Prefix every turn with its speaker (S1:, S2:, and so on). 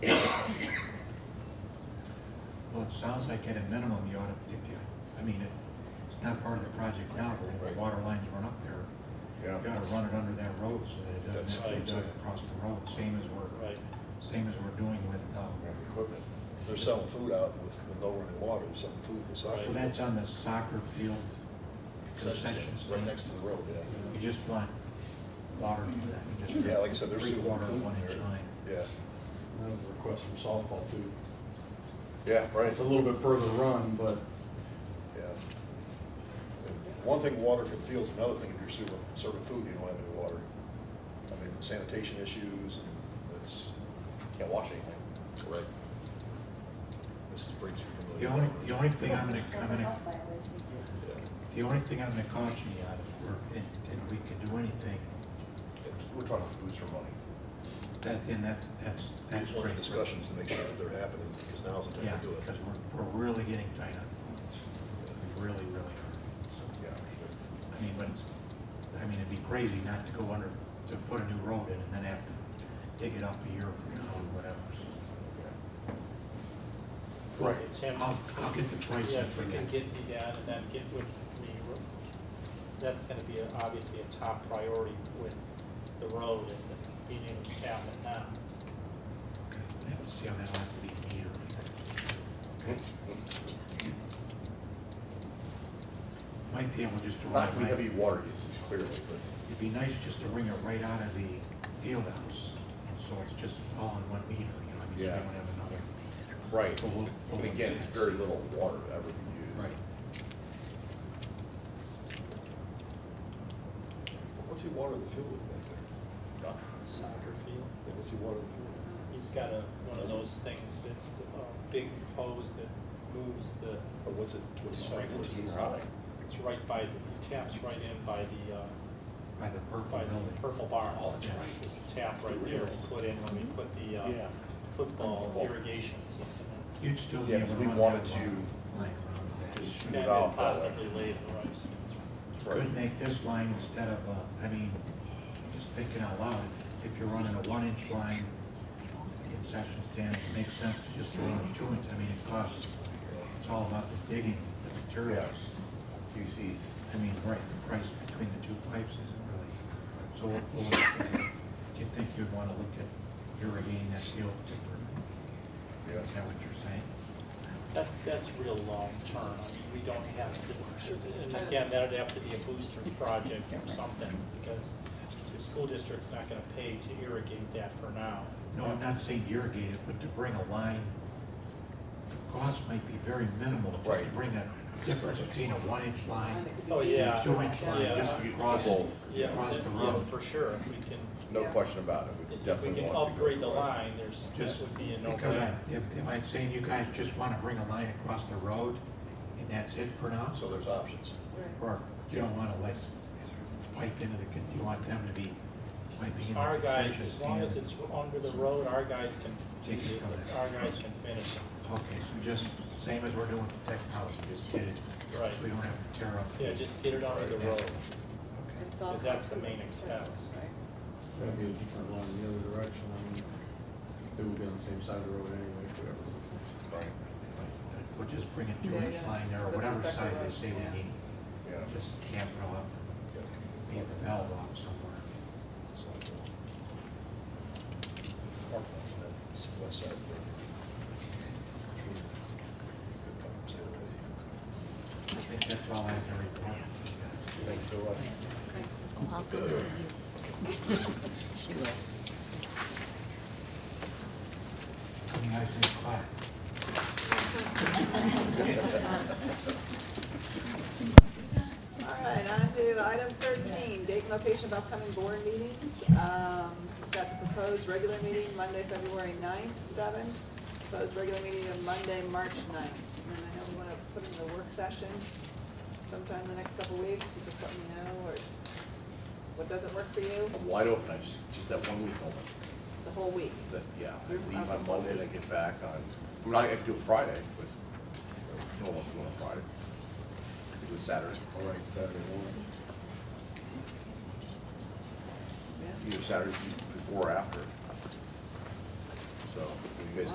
S1: sounds like at a minimum, you ought to, if you, I mean, it- it's not part of the project now, but if
S2: Right.
S1: the water lines run up there,
S3: Yeah.
S1: you ought to run it under that road so that it
S2: That's
S1: doesn't have
S2: right.
S1: to go across the road, same as we're,
S4: Right.
S1: same as we're doing with, um,
S3: Equipment.
S2: They're selling food out with, with no running water, They're selling food in the side.
S1: so that's on the soccer field concession
S2: Concessions, Right
S1: stand.
S2: next to the road,
S1: You just want water for that. You just
S2: yeah. Yeah, like I said, they're
S1: Free
S2: selling
S1: water,
S2: food
S1: one inch
S2: there.
S1: line.
S2: Yeah,
S5: Another request from softball too.
S3: Yeah, right.
S5: It's a little bit further run, but
S2: yeah. And One thing, water for the fields, another thing, if you're serving, serving food, you don't have any water. I mean, sanitation issues, and that's,
S6: Can't wash anything.
S2: right. Mrs. Briggs, you're
S1: The
S2: familiar
S1: only,
S2: with
S1: the only thing I'm gonna, I'm gonna The only thing I'm gonna caution you on is we're, and, and we can do anything,
S6: We're talking booster money.
S1: that, and that's, that's,
S2: We
S1: that's
S2: just want
S1: great.
S2: the discussions to make sure that they're happening, because now's the
S1: Yeah,
S2: time to do it.
S1: because we're, we're really getting tight on funds, we really, really are, so,
S6: Yeah.
S1: I mean, but it's, I mean, it'd be crazy not to go under, to put a new road in and then have to dig it up a year from now or whatever, so.
S3: Right.
S4: It's him.
S1: I'll, I'll get the
S4: Yeah,
S1: pricing
S4: if
S1: for
S4: you
S1: you.
S4: can get me that and then get with me, that's gonna be a- obviously a top priority with the road and the- being able to tap it now.
S1: Okay, let's see how that'll have to be metered. Okay? Might be able just to.
S6: Not
S1: run
S6: we
S1: my-
S6: heavy water usage clearly, but
S1: It'd be nice just to bring it right out of the field house, and so it's just all in one meter, you know, I mean, so we
S6: Yeah.
S1: don't have another.
S6: right.
S1: But we'll-
S6: But again, it's very little water ever used.
S2: What's he water the field with back there?
S6: No.
S4: Soccer field,
S2: Yeah, What's he water the field with?
S4: he's got a, one of those things that, a big hose that moves the,
S2: Or what's it, what's it?
S4: Sprinklers. it's right by, the taps right in by the, uh,
S1: By the purple
S4: by the
S1: building.
S4: purple barn.
S2: Oh, that's right.
S4: There's a tap right there we put in when we put the, uh, football
S6: Football.
S4: irrigation system in.
S1: You'd still be
S6: Yeah,
S1: able to
S6: because
S1: run
S6: we
S1: that
S6: wanted
S1: long
S6: to
S1: line around that.
S6: just-
S4: And then
S6: Valve.
S4: possibly later, right?
S1: Could make this line instead of, uh, I mean, just thinking out loud, if you're running a one inch line, concession stand, it makes sense to just run a two inch, I mean, it costs, it's all about the digging, the materials.
S6: QCs.
S1: I mean, right, the price between the two pipes isn't really, so what- what would- do you think you'd want to look at irrigating that field differently?
S6: Yeah.
S1: Is that what you're saying?
S4: That's, that's real long term. I mean, we don't have to, and again, that'd have to be a booster project or something because the school district's not gonna pay to irrigate that for now.
S1: No, I'm not saying to irrigate it, but to bring a line, the cost might be very minimal, just to
S6: Right.
S1: bring a difference between a one-inch line
S4: Oh,
S1: and
S4: yeah.
S1: a two-inch line,
S4: Yeah.
S1: just across,
S6: Both.
S4: Yeah,
S1: across the
S4: yeah,
S1: road.
S4: for sure. If we can,
S6: No question about it. We
S4: if we
S6: definitely
S4: can
S6: want to go
S4: upgrade the
S6: for it.
S4: line, there's, that
S1: Just
S4: would be a
S1: because I,
S4: no-brainer.
S1: am- am I saying you guys just want to bring a line across the road and that's it for now?
S2: So there's options.
S1: Or you don't want to let, pipe into the, con- you want them to be piping in
S4: Our
S1: the
S4: guys,
S1: concession
S4: as long as
S1: stand.
S4: it's under the road, our guys can,
S1: Take it from there.
S4: our guys can finish it.
S1: Okay, so just same as we're doing with the technology, just get it.
S4: Right.
S1: We don't have to tear up.
S4: Yeah, just get it under the road.
S1: Okay.
S4: Because that's the main expense.
S5: that'd be a different line in the other direction. I mean, it would be on the same side of the road anyway, if we ever.
S6: Right,
S1: We'll just bring a two
S7: Yeah,
S1: inch
S7: yeah.
S1: line there, or
S7: That's
S1: whatever
S7: exactly
S1: size they
S7: right.
S1: say
S7: Yeah.
S1: we need,
S6: yeah.
S1: just camp it off, be at the valve off somewhere.
S2: So, uh, Mark wants that, so what's that?
S1: I think that's all I have to report.
S2: Thank you so much.
S7: I'll come see you. She will.
S1: You guys need to clap.
S8: All right, on to item thirteen, date and location of upcoming board meetings. Um, we've got the proposed regular meeting Monday, February ninth, seven. Proposed regular meeting of Monday, March ninth. And then I know we wanna put in the work session sometime in the next couple weeks, you just let me know, or what doesn't work for you,
S6: I'm wide open. I just, just that one week only.
S8: the whole week.
S6: That, yeah, I
S8: You're
S6: leave
S8: up.
S6: on Monday and I get back on, I mean, I could do it Friday, but no one's going on Friday. I could do it Saturday.
S3: All right, Saturday morning.
S8: Yeah.
S6: either Saturday before or after. So, you guys